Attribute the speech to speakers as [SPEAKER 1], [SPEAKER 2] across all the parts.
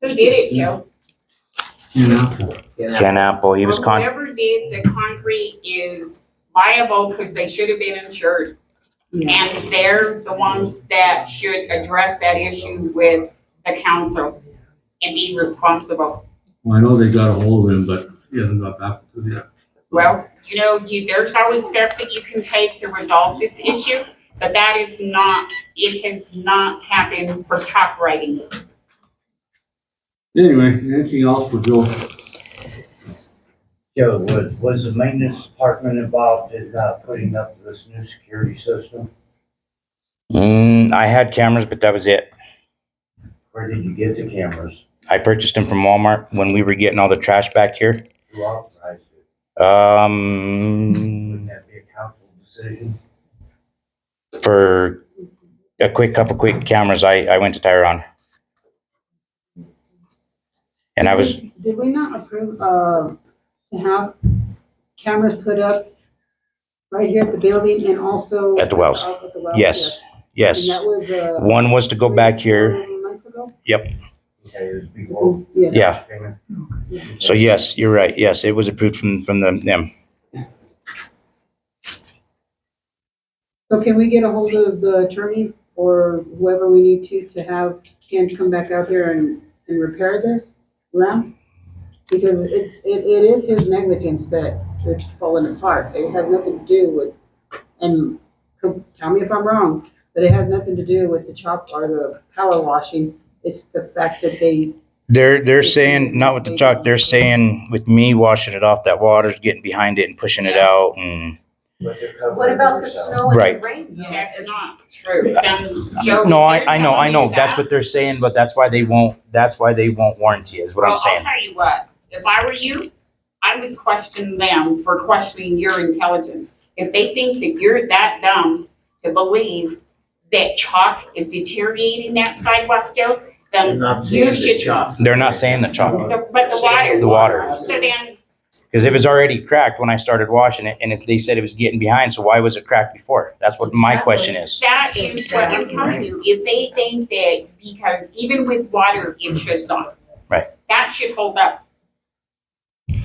[SPEAKER 1] Who did it, Joe?
[SPEAKER 2] You know?
[SPEAKER 3] Ken Apple, he was
[SPEAKER 1] Well,
[SPEAKER 3] con,
[SPEAKER 1] Whoever did the concrete is liable because they should have been insured. And they're the ones that should address that issue with the council and be responsible.
[SPEAKER 2] Well, I know they got a hold of him, but he hasn't got back to them yet.
[SPEAKER 1] Well, you know, you, there's always steps that you can take to resolve this issue, but that is not, it has not happened for chalk writing.
[SPEAKER 2] Anyway, anything else for Joe?
[SPEAKER 4] Joe, was, was the maintenance department involved in, uh, putting up this new security system?
[SPEAKER 3] mm, I had cameras, but that was it.
[SPEAKER 4] Where did you get the cameras?
[SPEAKER 3] I purchased them from Walmart when we were getting all the trash back here.
[SPEAKER 4] Who authorized it? Wouldn't
[SPEAKER 3] Um,
[SPEAKER 4] that be a council decision?
[SPEAKER 3] for a quick couple quick cameras, I, I went to Tyron. And I was,
[SPEAKER 5] Did we not approve, uh, to have cameras put up right here at the building and also?
[SPEAKER 3] At the wells.
[SPEAKER 5] Out At the wells,
[SPEAKER 3] yes, yes.
[SPEAKER 5] And that was, uh.
[SPEAKER 3] One was to go back here.
[SPEAKER 5] three Months ago?
[SPEAKER 4] Okay, it was before.
[SPEAKER 5] Yeah.
[SPEAKER 3] Yeah. So yes, you're right. Yes, it was approved from, from the, them.
[SPEAKER 5] So can we get a hold of the attorney or whoever we need to, to have Ken come back out here and, and repair this lamp? Because it's, it, it is his negligence that it's falling apart. It has nothing to do with, and co- tell me if I'm wrong, but it has nothing to do with the chop or the power washing. It's the fact that they,
[SPEAKER 3] They're, they're saying, not with the chalk, they're saying with me washing it off, that water's getting behind it and pushing it out and.
[SPEAKER 6] What about the snow
[SPEAKER 3] Right.
[SPEAKER 6] and the rain? though?
[SPEAKER 1] That's not true. Then, Joe,
[SPEAKER 3] No,
[SPEAKER 1] they're
[SPEAKER 3] I, I know, I
[SPEAKER 1] telling
[SPEAKER 3] know.
[SPEAKER 1] you
[SPEAKER 3] That's
[SPEAKER 1] that.
[SPEAKER 3] what they're saying, but that's why they won't, that's why they won't warranty is what I'm
[SPEAKER 1] Well, I'll
[SPEAKER 3] saying.
[SPEAKER 1] tell you what, if I were you, I would question them for questioning your intelligence. If they think that you're that dumb to believe that chalk is deteriorating that sidewalk still, then, You should-
[SPEAKER 3] They're not saying the chalk,
[SPEAKER 1] the- but the water.
[SPEAKER 3] The water.
[SPEAKER 1] So then,
[SPEAKER 3] because it was already cracked when I started washing it and it, they said it was getting behind, so why was it cracked before? That's what my
[SPEAKER 6] Exactly.
[SPEAKER 3] question is.
[SPEAKER 1] that is what I'm telling you, if they think that, because even with water, it should not.
[SPEAKER 3] Right.
[SPEAKER 1] That should hold up.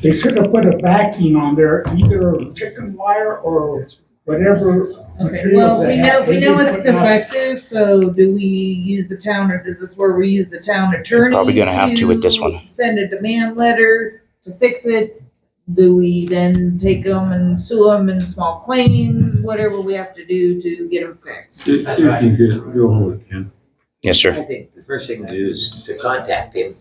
[SPEAKER 7] They should have put a backing on there, either chicken wire or whatever material
[SPEAKER 8] Well,
[SPEAKER 7] they
[SPEAKER 8] we
[SPEAKER 7] have.
[SPEAKER 8] know, we
[SPEAKER 7] They
[SPEAKER 8] know
[SPEAKER 7] didn't
[SPEAKER 8] it's
[SPEAKER 7] put nothing.
[SPEAKER 8] defective, so do we use the town, or is this where we use the town attorney?
[SPEAKER 3] Probably gonna have to with this one.
[SPEAKER 8] Send a demand letter to fix it, do we then take them and sue them in small claims, whatever we have to do to get them fixed?
[SPEAKER 2] See see if you can get, go hold of Ken.
[SPEAKER 3] Yes, sir.
[SPEAKER 9] I think the first thing to do is to contact him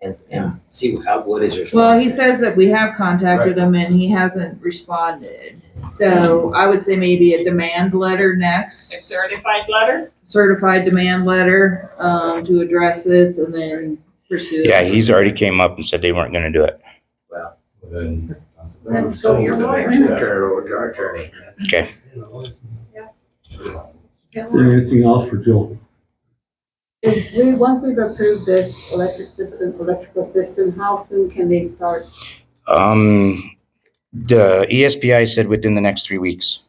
[SPEAKER 9] and, and see how, what his response
[SPEAKER 8] Well, he
[SPEAKER 9] is.
[SPEAKER 8] says that we have contacted him and he hasn't responded, so I would say maybe a demand letter next.
[SPEAKER 1] A certified letter,
[SPEAKER 8] certified demand letter, um, to address this and then pursue. it.
[SPEAKER 3] Yeah, he's already came up and said they weren't gonna do it.
[SPEAKER 10] Then.
[SPEAKER 6] Then go your lawyer.
[SPEAKER 9] Turn it over to our attorney.
[SPEAKER 2] Anything else for Joe?
[SPEAKER 5] if we, once we've approved this electric system, electrical system, how soon can they start?
[SPEAKER 3] Um, the E ESPI said within the next three weeks.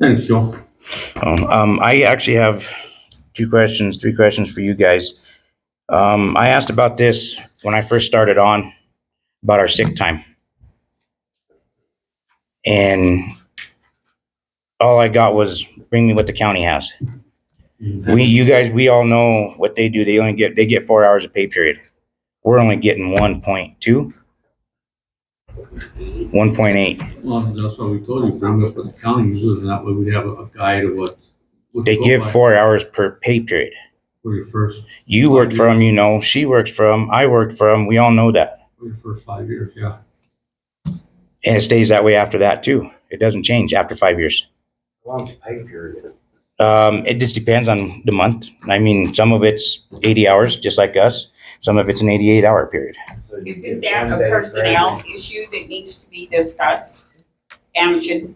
[SPEAKER 2] Thanks, Joe.
[SPEAKER 3] Um, um, I actually have two questions, three questions for you guys. Um, I asked about this when I first started on, about our sick time. And all I got was bring me what the county has. We,
[SPEAKER 2] Mhm.
[SPEAKER 3] you guys, we all know what they do. They only get, they get four hours of pay period. We're only getting one point two. One point eight.
[SPEAKER 2] Well, that's why we told you, bring up with the county users, and that way we have a a guide of what. what to
[SPEAKER 3] They
[SPEAKER 2] go
[SPEAKER 3] give
[SPEAKER 2] by
[SPEAKER 3] four hours per pay period.
[SPEAKER 2] For your first,
[SPEAKER 3] You
[SPEAKER 2] Oh,
[SPEAKER 3] worked
[SPEAKER 2] yeah.
[SPEAKER 3] from, you know, she worked from, I worked from, we all know that.
[SPEAKER 2] for your first five years, yeah.
[SPEAKER 3] And it stays that way after that too. It doesn't change after five years.
[SPEAKER 4] Long pay period.
[SPEAKER 3] Um, it just depends on the month. I mean, some of it's eighty hours, just like us. Some of it's an eighty-eight hour period.
[SPEAKER 4] So you
[SPEAKER 1] isn't
[SPEAKER 4] get
[SPEAKER 1] that
[SPEAKER 4] one
[SPEAKER 1] a
[SPEAKER 4] day of
[SPEAKER 1] personnel
[SPEAKER 4] grace.
[SPEAKER 1] issue that needs to be discussed? And should